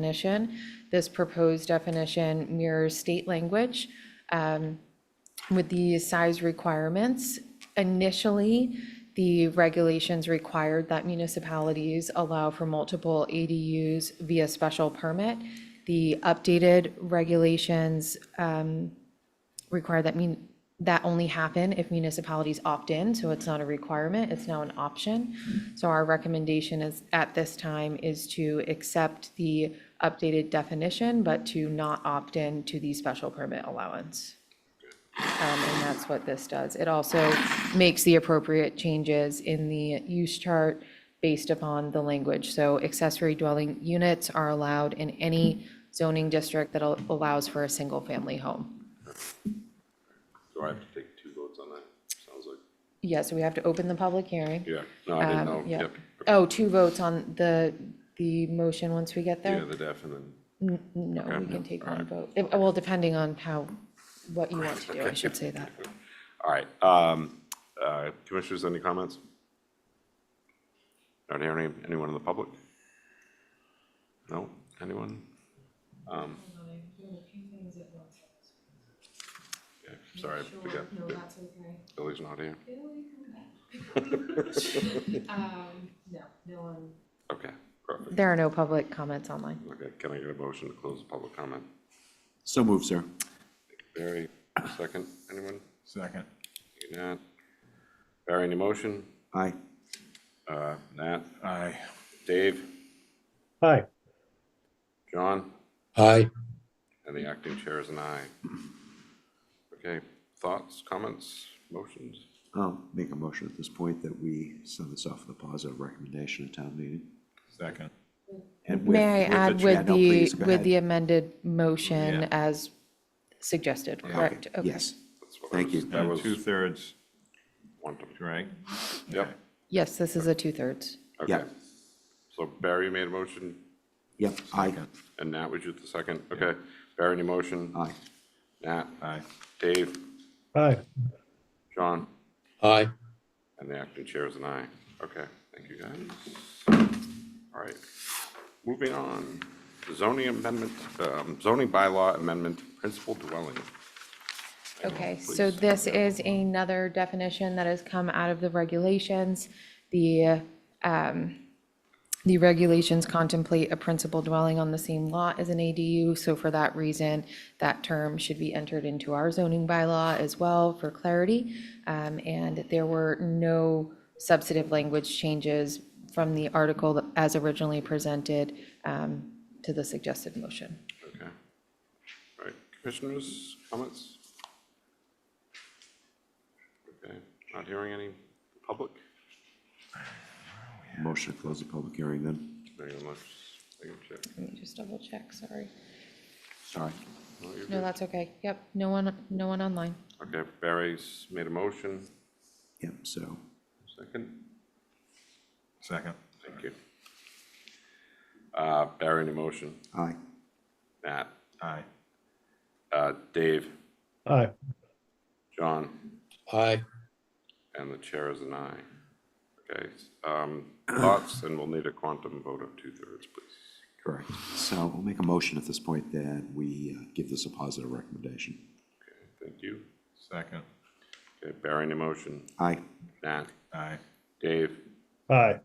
definition. This proposed definition mirrors state language um, with the size requirements. Initially, the regulations required that municipalities allow for multiple ADUs via special permit. The updated regulations require that mean, that only happen if municipalities opt in, so it's not a requirement, it's now an option. So our recommendation is, at this time, is to accept the updated definition, but to not opt in to the special permit allowance. Um, and that's what this does. It also makes the appropriate changes in the use chart based upon the language. So accessory dwelling units are allowed in any zoning district that al- allows for a single-family home. Do I have to take two votes on that? Sounds like, Yeah, so we have to open the public hearing. yeah, no, I didn't know, Um, yeah. yep. Oh, two votes on the, the motion once we get Yeah, there? the def and then, No, we can take one vote. If- Well, depending on how, what you want to do, I should say that. all right. um, uh, Commissioners, any comments? Not hearing any- anyone in the public? No, anyone? Um, Yeah, Sorry, I forgot, No, Yeah, that's okay. Billy's not here, Um, no, no one. okay, perfect. There are no public comments online. Okay, can I get a motion to close the public comment? So moved, sir. Barry, second, anyone? Second. Nat? Barry, any motion? Aye. Uh, Nat? Aye. Dave? Hi. John? Hi. And the acting chair is an aye. Okay, thoughts, comments, motions? I'll make a motion at this point that we send this off with a positive recommendation at town meeting. Second. And with- May I the add chat- with no, the, please, go with the ahead. amended motion Yeah. as suggested, correct? Okay, Okay. Yes, That's what I thank was- you. That was Two-thirds, one to, right? yep, Yes, this is a two-thirds. okay. Yeah. So Barry made a motion, Yep, aye, and Nat was you the second, okay. Barry, any motion? aye. Nat? Aye. Dave? Hi. John? Hi. And the acting chair is an aye. Okay, thank you, guys. All right, moving on. Zoning amendment, um, zoning bylaw amendment, principal dwelling. Okay, so this is another definition that has come out of the regulations. The, um, the regulations contemplate a principal dwelling on the same lot as an ADU, so for that reason, that term should be entered into our zoning bylaw as well for clarity. Um, and there were no substantive language changes from the article that- as originally presented, um, to the suggested motion. Okay. All right, commissioners, comments? Okay, not hearing any public? Motion to close the public hearing then. Very much. Thank you, Chair. Let me just double check, sorry. Sorry. No, you're No, good. that's okay. Yep, no one, no one online. Okay, Barry's made a motion, Yep, so, second. Second. Thank you. Uh, Barry, any motion? aye. Nat? Aye. Uh, Dave? Hi. John? Hi. And the chair is an aye. Okay, um, thoughts, and we'll need a quantum vote of two-thirds, please. Correct. So I'll make a motion at this point that we uh, give this a positive recommendation. Okay, thank you. Second. Okay, Barry, any motion? Aye, Nat? Aye. Dave? Hi.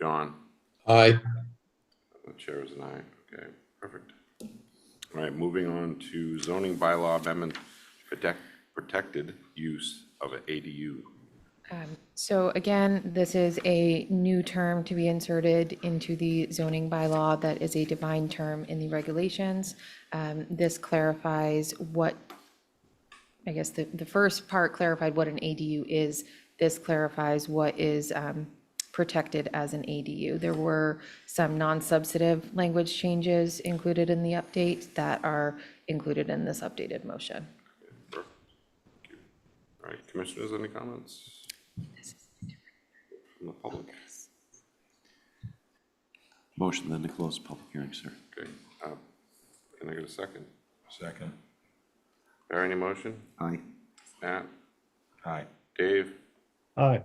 John? Hi. The chair is an aye. Okay, perfect. All right, moving on to zoning bylaw amendment, protect, protected use of an ADU. So again, this is a new term to be inserted into the zoning bylaw that is a defined term in the regulations. Um, This clarifies what, I guess the, the first part clarified what an ADU is. This clarifies what is um, protected as an ADU. There were some non-substantive language changes included in the update that are included in this updated motion. Perfect. Thank you. All right, commissioners, any comments? From the public? motion then to close the public hearing, sir. Okay, uh, can I get a second? Second. Barry, any motion? Aye, Nat? Aye. Dave? Hi.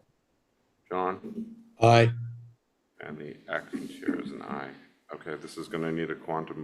John? Hi. And the acting chair is an aye. Okay, this is going to need a quantum